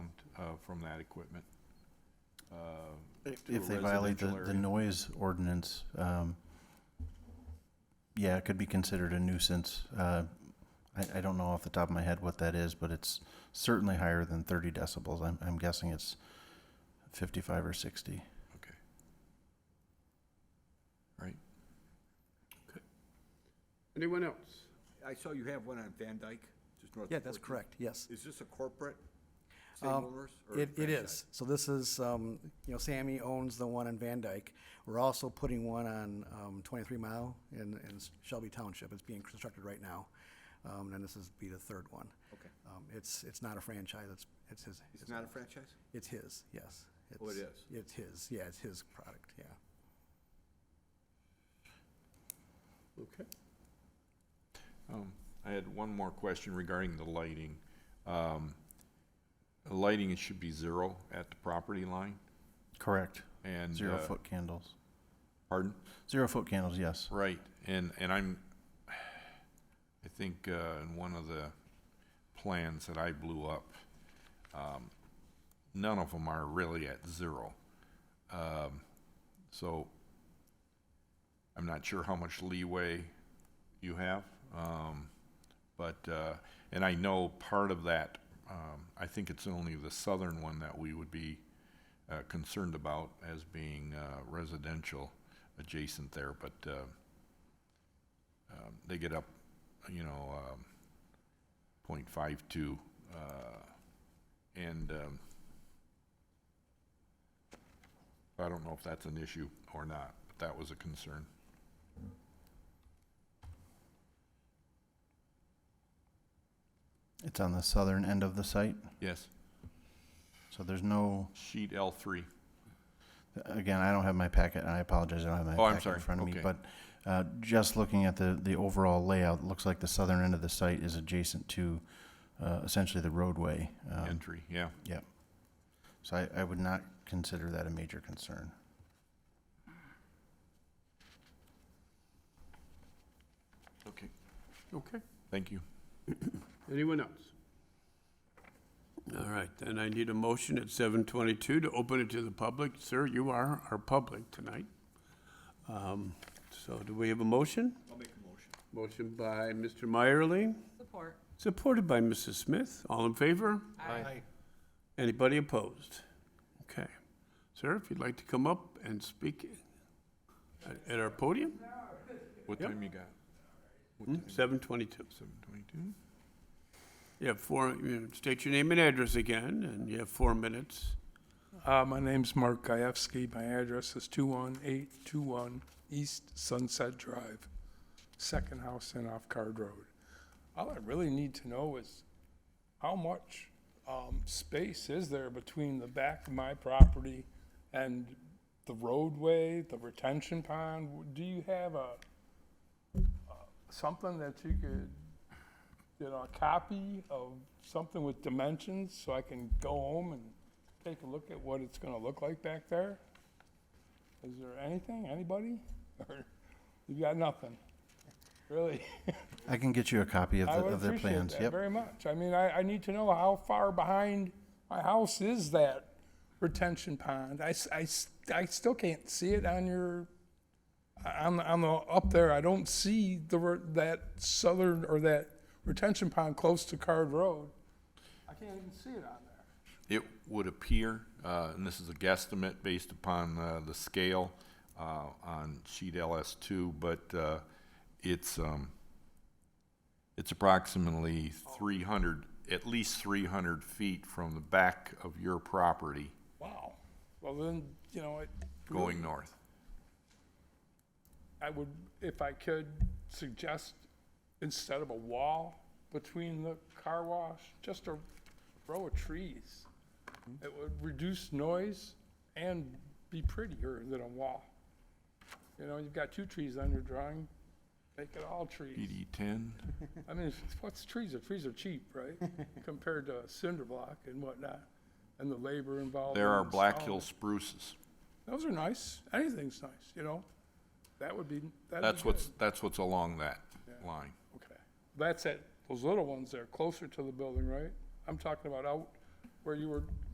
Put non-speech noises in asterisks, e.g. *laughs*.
uh, from that equipment. uh, to a If they violate the, residential the area. noise ordinance, um, yeah, it could be considered a nuisance. Uh, I, I don't know off the top of my head what that is, but it's certainly higher than thirty decibels. I'm, I'm guessing it's fifty-five or sixty. Anyone else? I saw you have one on Van Dyke, just north of. Yeah, that's 14th. correct, yes. Is this a corporate Um, same owners? or It, it franchise? is. So this is, um, you know, Sammy owns the one in Van Dyke. We're also putting one on, um, twenty-three mile in, in Shelby Township. It's being constructed right now. Um, and this is be the third one. Okay. Um, it's, it's not a franchise, it's, it's his. It's his not a own. franchise? It's his, yes. Oh, it It's- is. It's his, yeah, it's his product, yeah. Okay. Um, I had one more question regarding the lighting. Um, the Lighting, it should be zero at the property line Correct. and. uh, Zero-foot candles. Pardon? Zero-foot candles, yes. Right, and, and I'm, I think, uh, in one of the plans that I blew up, um, none of them are really at zero. Um, so I'm not sure how much leeway you have, um, but, uh, and I know part of that, um, I think it's only the southern one that we would be, uh, concerned about as being, uh, residential adjacent there, but, uh, um, they get up, you know, um, point five two, uh, and, um, I don't know if that's an issue or not, but that was a concern. It's on the southern end of the site, Yes, so there's no, sheet L three. again, I don't have my packet, and I apologize, I don't have my Oh, I'm packet sorry. in front of me. Okay. But uh, just looking at the, the overall layout, looks like the southern end of the site is adjacent to uh, essentially the roadway. um, entry, yeah. So I, I would not consider that a major concern. Okay. Okay. Thank you. Anyone else? All right, then I need a motion at seven twenty-two to open it to the public. Sir, you are our public tonight. Um, So do we have a motion? I'll make a motion. Motion by Mr. Meyerly, Support. supported by Mrs. Smith. All in favor? Aye. Anybody opposed? Okay. Sir, if you'd like to come up and speak at- at our podium, What Yep. time you got? seven twenty-two. Seven twenty-two? You have four, you state your name and address again, and you have four minutes. Uh, my name's Mark Gajewski. My address is 21821 East Sunset Drive, second house in off Card Road. All I really need to know is how much um, space is there between the back of my property and the roadway, the retention pond? Do you have a, uh, something that you could, you know, a copy of something with dimensions so I can go home and take a look at what it's gonna look like back there? Is there anything, anybody? *laughs* Or you got nothing? Really? *laughs* I can get you a copy of the, I would of their appreciate plans, that yep. very much. I mean, I, I need to know how far behind my house is that retention pond. I, s- I s- I still can't see it on your, on, the- on the, up there, I don't see the, re- that southern, or that retention pond close to Card Road. I can't even see it on there. It would appear, uh, and this is a guesstimate based upon uh, the scale uh, on sheet LS2, but uh, it's, um, it's approximately 300, at least 300 feet from the back of your property Wow. Well, then, you know, it. going north. I would, if I could, suggest instead of a wall between the car wash, just a row of trees. Mm-hmm. It would reduce noise and be prettier than a wall. You know, you've got two trees on your drawing, make it all trees. PD 10, I mean, it's- what's trees are, trees are cheap, *laughs* right? Compared to cinder block and whatnot, and the labor involved. there in are Black installing Hill it. spruces. Those are nice, anything's nice, you know? That would be, that'd be That's what's, good. that's what's along that line. Okay, that's it, those little ones there, closer to the building, right? I'm talking about out where you were